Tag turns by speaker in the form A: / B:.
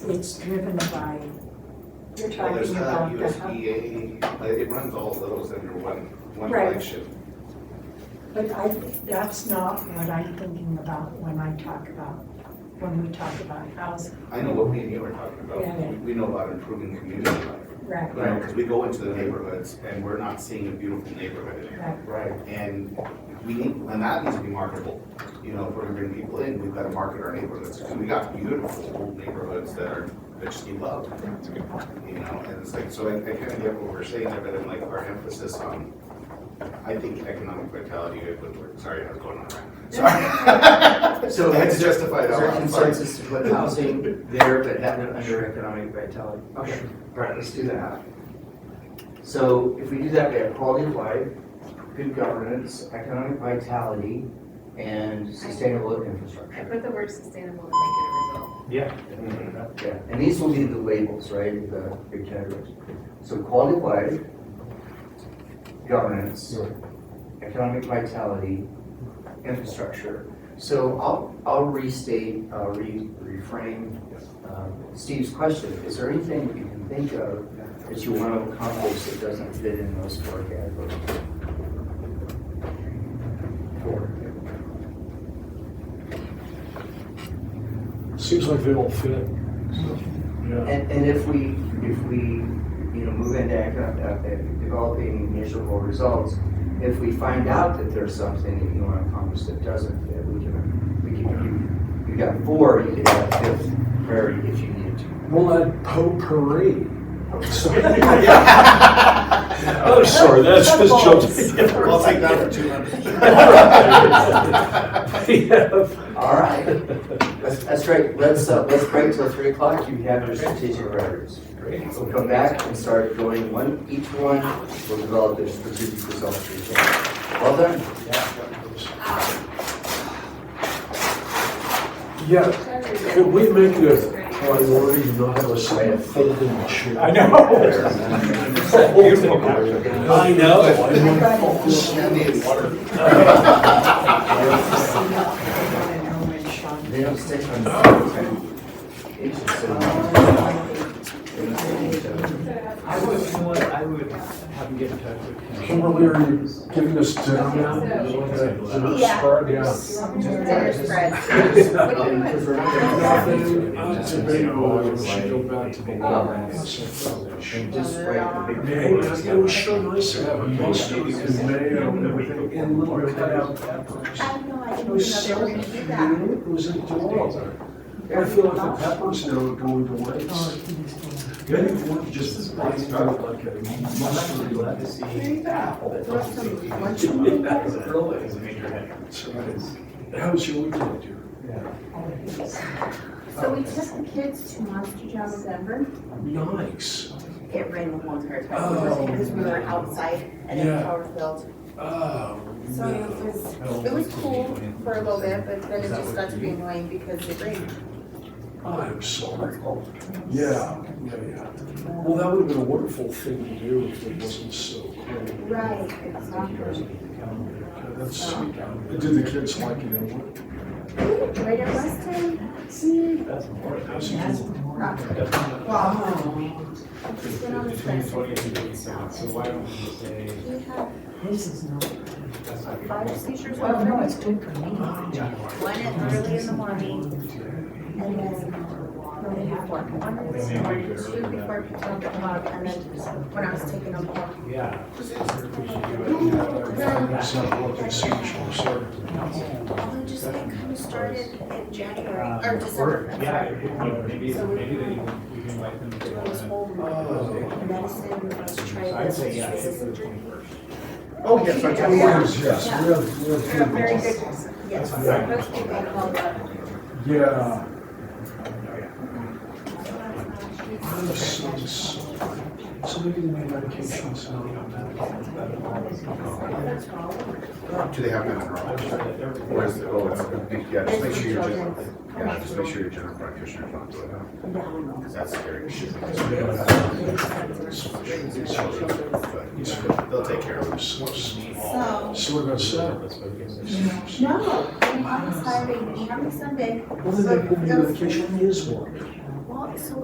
A: It's driven by, you're
B: Well, there's
A: talking
B: that
A: about the hub.
B: USDA, uh, it runs all of those under one, one
A: Right.
B: flagship.
A: But I, that's not what I'm thinking about when I talk about, when we talk about housing.
B: I know what me and you are talking about,
A: Yeah.
B: We- we know about improving community life.
A: Right,
B: You know, because we go into the neighborhoods and we're not seeing a beautiful neighborhood anymore.
A: right,
C: Right.
B: And we need, and that needs to be marketable. You know, if we're gonna bring people in, we've gotta market our neighborhoods, because we got beautiful old neighborhoods that are, that just need love. You know, and it's like, so I, I kinda get what we're saying, there, but then like our emphasis on, I think economic vitality, it would work. sorry, I was going on a rant. Sorry.
C: So
B: I had to
C: is
B: justify that.
C: there
B: one, sorry.
C: consensus to put housing there but have it under economic vitality? Okay, all right, let's do that. So if we do that, we have quality of life, good governance, economic vitality, and sustainable
D: I
C: infrastructure.
D: put the word sustainable and make it a result.
C: Yeah, and these will be the labels, right, the big categories. So quality of life, governance, economic vitality, infrastructure. So I'll, I'll restate, uh, re- reframe um, Steve's question. Is there anything that you can think of that you want to accomplish that doesn't fit in those four categories? Four.
E: Seems like they all fit. Yeah.
C: And, and if we, if we, you know, move into economic, uh, developing measurable results, if we find out that there's something that you want to accomplish that doesn't fit, we can, we can, you, you got four, you could have a fifth priority if you needed to.
E: We'll add potpourri. Sorry. Oh, sorry, that's just jumped.
B: I'll take that for two hundred.
E: Yeah.
C: All right, that's, that's great, let's, uh, let's break till three o'clock, you have your strategic priorities. We'll come back and start going one, each one, we'll develop their strategic results. for each one. Well done.
E: Yeah, can we make it a priority to not have a side folding chair? I know. I know.
A: I got it.
C: They don't stick on the same page, so-
F: I would, you know what, I would have him get in touch with him.
E: Kimberly, are you giving us dinner now?
D: Yeah.
E: Start, yeah.
D: Dinner spread. What do you want?
C: Because we're not gonna-
E: Nothing undebatable, we should go back to the
C: And just write the big
E: Hey,
C: picture.
E: it was so nice to have a most of it in mayo and everything, and little cutout peppers.
D: I don't know, I
E: It
D: didn't
E: was
D: even know we were
E: so
D: gonna do that.
E: cute, it was adorable. I feel like the peppers now are going to waste. Maybe we want to just buy it out like a mustard. How's your weekend, dear?
G: So
F: Oh,
G: we took the kids to Monster Jam in Denver.
E: Nice.
G: It rained the whole entire
F: Oh,
G: time because we were outside and it was
E: Yeah.
G: overfilled.
E: Oh,
G: So it was, it was cool for a little bit, but then it just got to be annoying because it rained.
E: Oh, I'm sorry. Yeah, yeah, yeah. Well, that would have been a wonderful thing to do if it wasn't so cold.
G: exactly.
E: Okay, That's sweet. Did the kids like it anyway?
G: We enjoyed it last time.
E: How's it going?
G: Not good. I just went on the fence.
F: So why don't we say?
G: We had
A: This is not,
G: five seizures
A: well,
G: one
A: no,
G: night,
A: it's good for me.
G: one at early in the morning, and then
A: They have one.
G: one in the morning, two before twelve o'clock, and then when I was taking them home.
F: Yeah.
E: It's not what they seem to serve.
G: Although just it kind of started in January,
F: Uh,
G: or
F: Or,
G: December, I'm
F: yeah,
G: sorry.
F: it- it- maybe, maybe they, we can invite them if they
G: It
F: want
G: was
F: to.
G: whole
F: Oh.
G: medicine, let's try
F: So I'd
G: this.
F: say, yeah,
G: this
F: hit
G: is
F: for the
G: a drink.
F: twenty-first.
B: Oh, yes, I
G: Yeah.
B: can.
E: Yes, yes, we have, we
G: Yeah,
E: have.
G: Very good,
E: people.
F: That's
G: yes.
F: fine.
G: Most people call that.
E: Yeah. I'm so sorry. So maybe the medication's not on
G: That's wrong.
B: Do they have that in
F: I'm
B: Raleigh?
F: sure that everything.
B: Or is it, oh, it's, yeah, just make sure you're general,
G: Children's.
B: yeah, just make sure your general practitioner is not doing that. Because that's scary. But They'll take care of it.
G: So,
E: So what about Saturday?
G: no, I'm on Saturday, and I'm on Sunday.
E: Well, then that- then the medication is one.